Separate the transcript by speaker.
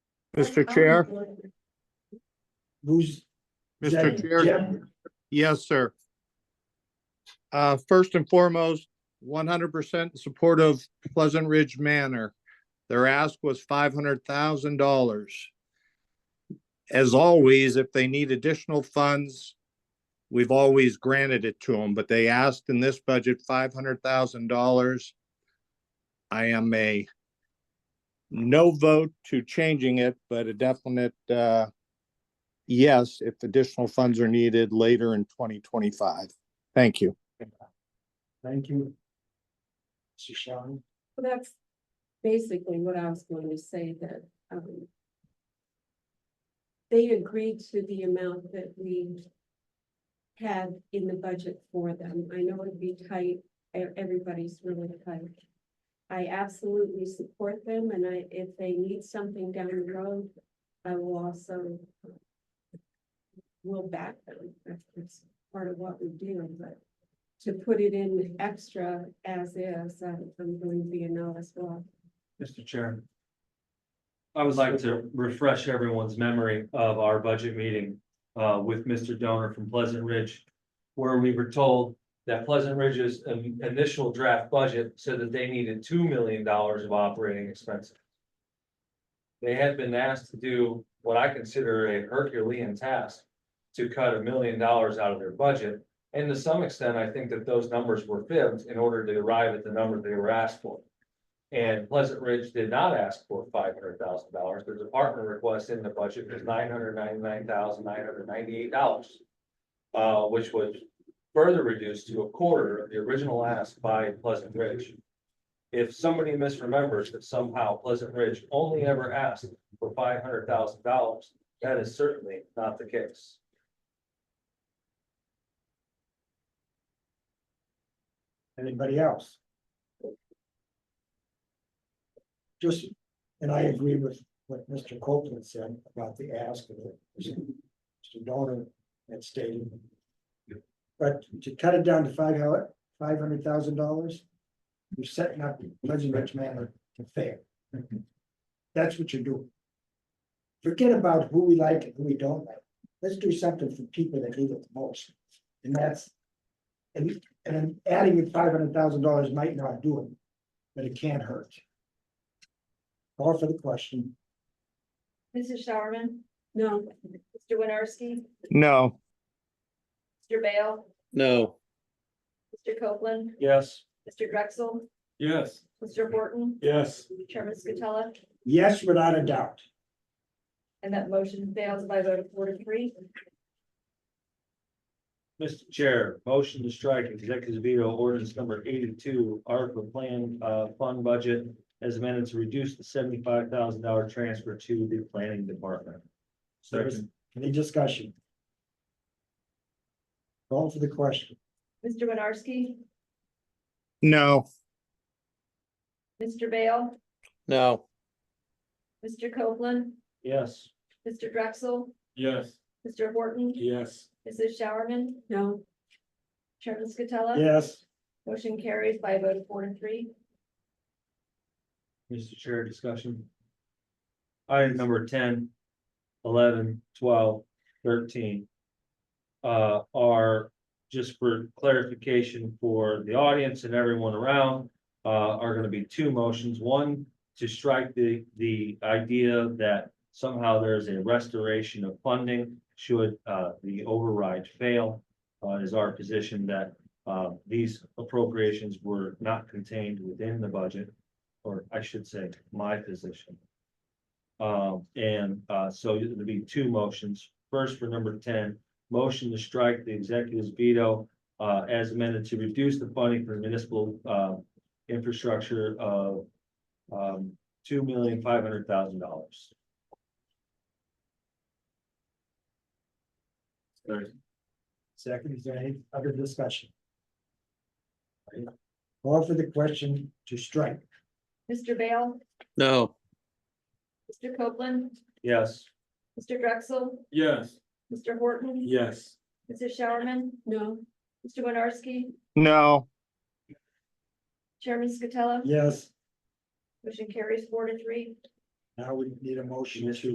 Speaker 1: Mr. Chair,
Speaker 2: Who's?
Speaker 1: Mr. Chair,
Speaker 2: Jeb?
Speaker 1: yes, sir. Uh, first and foremost, one hundred percent support of Pleasant Ridge Manor. Their ask was five hundred thousand dollars. As always, if they need additional funds, we've always granted it to them, but they asked in this budget five hundred thousand dollars. I am a no vote to changing it, but a definite, uh, yes, if additional funds are needed later in twenty twenty-five. Thank you.
Speaker 2: Thank you. Mr. Sharon,
Speaker 3: Well, That's basically what I was going to say that, um. They agreed to the amount that we had in the budget for them. I know it'd be tight, e- everybody's really tight. I absolutely support them and I, if they need something down the road, I will also. um, Will back them. That's, that's part of what we do, but to put it in extra as is, uh, I'm going to be a no as well.
Speaker 4: Mr. Chair. I would like to refresh everyone's memory of our budget meeting uh, with Mr. Donor from Pleasant Ridge. Where we were told that Pleasant Ridge's um, initial draft budget said that they needed two million dollars of operating expenses. They had been asked to do what I consider a Herculean task. To cut a million dollars out of their budget, and to some extent, I think that those numbers were fibbed in order to arrive at the number they were asked for. And Pleasant Ridge did not ask for five hundred thousand dollars. Their department request in the budget was nine hundred ninety-nine thousand, nine hundred ninety-eight dollars. Uh, which was further reduced to a quarter of the original ask by Pleasant Ridge. If somebody misremembers that somehow Pleasant Ridge only ever asked for five hundred thousand dollars, that is certainly not the case.
Speaker 2: anybody else? Just, and I agree with what Mr. Copeland said about the ask of it. Mr. Donor had stated. But to cut it down to five hundred, five hundred thousand dollars, you're setting up Pleasant Ridge Manor to fail. That's what you're doing. Forget about who we like and who we don't like. Let's do something for people that need it the most. And that's. And, and then adding the five hundred thousand dollars might not do it, but it can't hurt. Call for the question.
Speaker 5: Mrs. Showerman,
Speaker 3: No,
Speaker 5: Mr. Winarski,
Speaker 1: No,
Speaker 5: Mr. Bale,
Speaker 6: No,
Speaker 5: Mr. Copeland,
Speaker 4: Yes.
Speaker 5: Mr. Drexel,
Speaker 4: Yes.
Speaker 5: Mr. Horton,
Speaker 4: Yes.
Speaker 5: Chairman Scatella,
Speaker 2: Yes, without a doubt.
Speaker 5: and that motion fails by a vote of four to three.
Speaker 4: Mr. Chair, motion to strike executive veto ordinance number eighty-two, ARPA plan, uh, fund budget as amended to reduce the seventy-five thousand dollar transfer to the planning department.
Speaker 2: There's any discussion? Call for the question.
Speaker 5: Mr. Winarski,
Speaker 1: no,
Speaker 5: Mr. Bale,
Speaker 6: no,
Speaker 5: Mr. Copeland,
Speaker 4: Yes.
Speaker 5: Mr. Drexel,
Speaker 4: Yes.
Speaker 5: Mr. Horton,
Speaker 4: Yes.
Speaker 5: Mrs. Showerman,
Speaker 3: no,
Speaker 5: Chairman Scatella.
Speaker 2: Yes,
Speaker 5: Motion carries by a vote of four to three.
Speaker 4: Mr. Chair, discussion. Item number 10, 11, 12, 13 uh, are, just for clarification for the audience and everyone around, uh, are gonna be two motions. One, to strike the, the idea that somehow there's a restoration of funding should, uh, the override fail, uh, is our position that, uh, these appropriations were not contained within the budget or I should say, my position. Um, and, uh, so it'll be two motions. First for number ten, motion to strike the executive's veto uh, as amended to reduce the funding for municipal, uh, infrastructure of um, two million five hundred thousand dollars.
Speaker 2: second, is there any other discussion? Call for the question to strike.
Speaker 5: Mr. Bale,
Speaker 6: no,
Speaker 5: Mr. Copeland,
Speaker 4: Yes.
Speaker 5: Mr. Drexel,
Speaker 4: Yes.
Speaker 5: Mr. Horton,
Speaker 4: Yes.
Speaker 5: Mrs. Showerman,
Speaker 3: no.
Speaker 5: Mr. Winarski,
Speaker 1: no,
Speaker 5: Chairman Scatella.
Speaker 2: Yes,
Speaker 5: Motion carries four to three.
Speaker 2: now we need a motion to.